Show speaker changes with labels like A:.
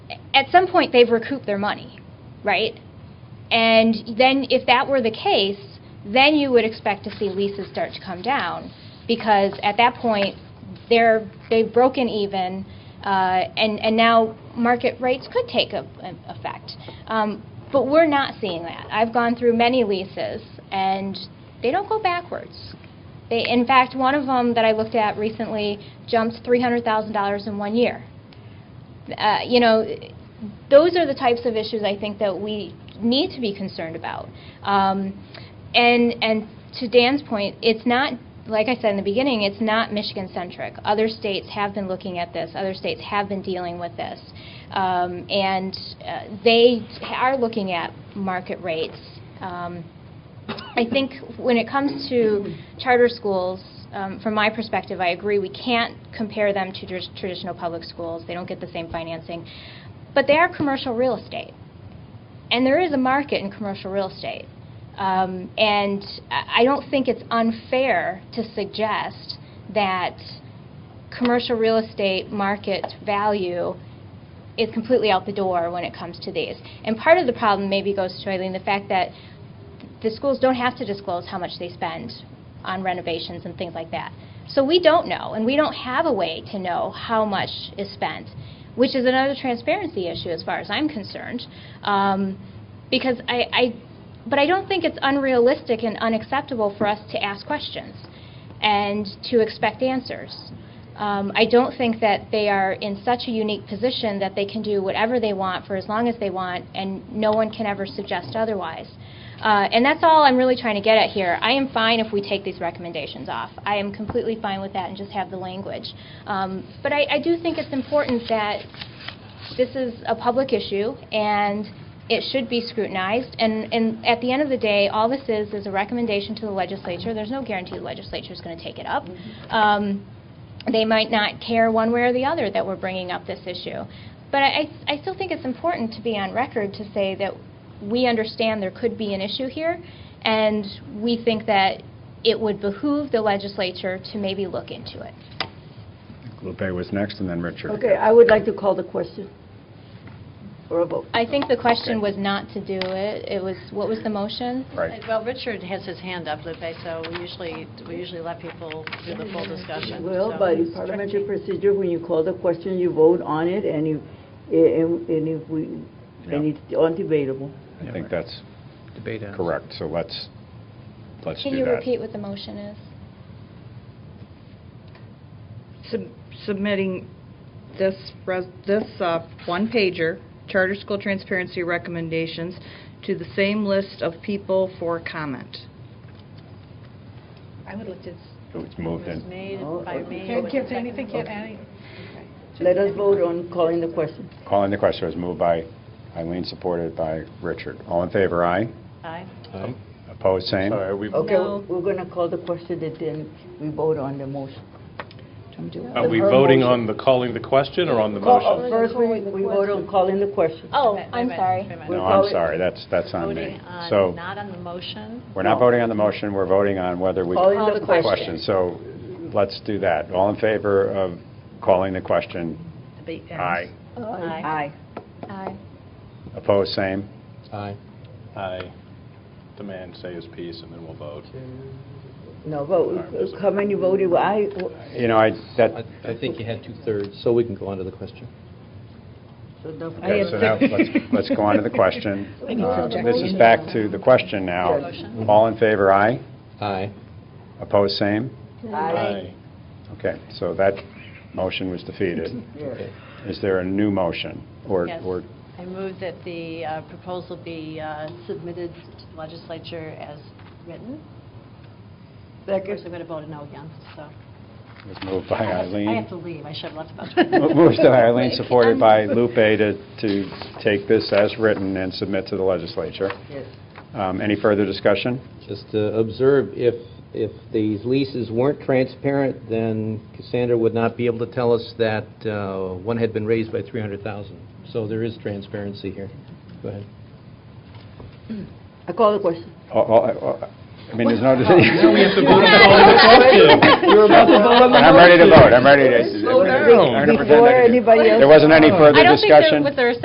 A: at some point, they've recouped their money, right? And then, if that were the case, then you would expect to see leases start to come down, because at that point, they're, they've broken even, uh, and, and now market rates could take a- an effect. Um, But we're not seeing that. I've gone through many leases, and they don't go backwards. They, in fact, one of them that I looked at recently jumped $300,000 in one year. Uh, You know, those are the types of issues I think that we need to be concerned about. Um, And, and to Dan's point, it's not, like I said in the beginning, it's not Michigan-centric. Other states have been looking at this, other states have been dealing with this. Um, And uh, they are looking at market rates. Um, I think when it comes to charter schools, um, from my perspective, I agree, we can't compare them to tr- traditional public schools. They don't get the same financing. But they are commercial real estate. And there is a market in commercial real estate. Um, And I I don't think it's unfair to suggest that commercial real estate market value is completely out the door when it comes to these. And part of the problem maybe goes to, Eileen, the fact that the schools don't have to disclose how much they spend on renovations and things like that. So we don't know, and we don't have a way to know how much is spent, which is another transparency issue as far as I'm concerned. Um, Because I, I, but I don't think it's unrealistic and unacceptable for us to ask questions and to expect answers. Um, I don't think that they are in such a unique position that they can do whatever they want for as long as they want, and no one can ever suggest otherwise. Uh, And that's all I'm really trying to get at here. I am fine if we take these recommendations off. I am completely fine with that and just have the language. Um, But I I do think it's important that this is a public issue, and it should be scrutinized. And, and at the end of the day, all this is, is a recommendation to the legislature. There's no guarantee the legislature is going to take it up. Um, They might not care one way or the other that we're bringing up this issue. But I, I still think it's important to be on record to say that we understand there could be an issue here, and we think that it would behoove the legislature to maybe look into it.
B: Lupe was next, and then Richard.
C: Okay, I would like to call the question for a vote.
A: I think the question was not to do it. It was, what was the motion?
B: Right.
D: Well, Richard has his hand up, Lupe, so we usually, we usually let people do the full discussion.
C: Well,
D: so-
C: by parliamentary procedure, when you call the question, you vote on it, and you, and and if we, and
B: Yeah.
C: it's undebatable.
B: I think that's
E: Debate ends.
B: correct, so let's, let's do that.
A: Can you repeat what the motion is?
F: sub- submitting this, res- this uh, one-pager, charter school transparency recommendations, to the same list of people for comment.
G: I would look to,
B: It was moved
D: It was
B: in.
D: made
C: Oh,
D: by
C: okay.
D: me.
G: can't give anything, can't add anything.
C: Let us vote on calling the question.
B: Calling the question was moved by Eileen, supported by Richard. All in favor, aye.
D: Aye.
B: Opposed, same.
H: Sorry, are we,
C: Okay,
F: No.
C: we're going to call the question, and then we vote on the motion.
H: are we voting on the calling the question or on the
C: Call- uh,
H: motion?
C: First, we we vote on calling the question.
A: Oh,
D: Wait a minute,
A: I'm
D: wait a
A: sorry.
D: minute, wait a minute.
B: No,
C: We'll call
B: I'm
C: it-
B: sorry, that's, that's on me.
D: Voting on,
B: So,
D: not on the motion.
B: we're not
C: No.
B: voting on the motion, we're voting on whether we...
C: Calling
A: Call
C: the
A: the
C: question.
B: So, let's do that. All in favor of calling the question,
D: Debate ends.
B: aye.
D: Aye.
C: Aye.
A: Aye.
B: Opposed, same.
E: Aye.
H: I demand say his piece and then we'll vote.
C: No, vote, how many voted aye?
B: You know, I, that,
E: I I think you had two-thirds, so we can go on to the question.
C: So the-
B: Okay, so now, let's, let's go on to the question. Uh, This is back to the question now.
D: Motion.
B: All in favor, aye?
E: Aye.
B: Opposed, same?
C: Aye.
B: Okay, so that motion was defeated.
E: Okay.
B: Is there a new motion? or
D: Yes.
B: or
D: I move that the uh, proposal be uh, submitted to the legislature as written. Of course,
C: Second.
D: I'm going to vote no again, so.
B: it was moved by
D: I have
B: Eileen?
D: to leave, I should have left about.
B: Moved by Eileen, supported by Lupe to, to take this as written and submit to the legislature.
C: Yes.
B: Um, Any further discussion?
E: Just to observe, if, if these leases weren't transparent, then Cassandra would not be able to tell us that uh, one had been raised by 300,000. So there is transparency here. Go ahead.
C: I call the question.
B: All- all- all- I mean, there's no
H: We
B: decision.
H: have to vote on the question.
E: You're about to vote on the
B: I'm ready to
E: motion.
B: vote, I'm ready to...
H: Slow down.
B: I'm gonna pretend I
C: Before
B: didn't.
C: anybody else.
B: There wasn't any further
A: I don't think
B: discussion?
A: there was a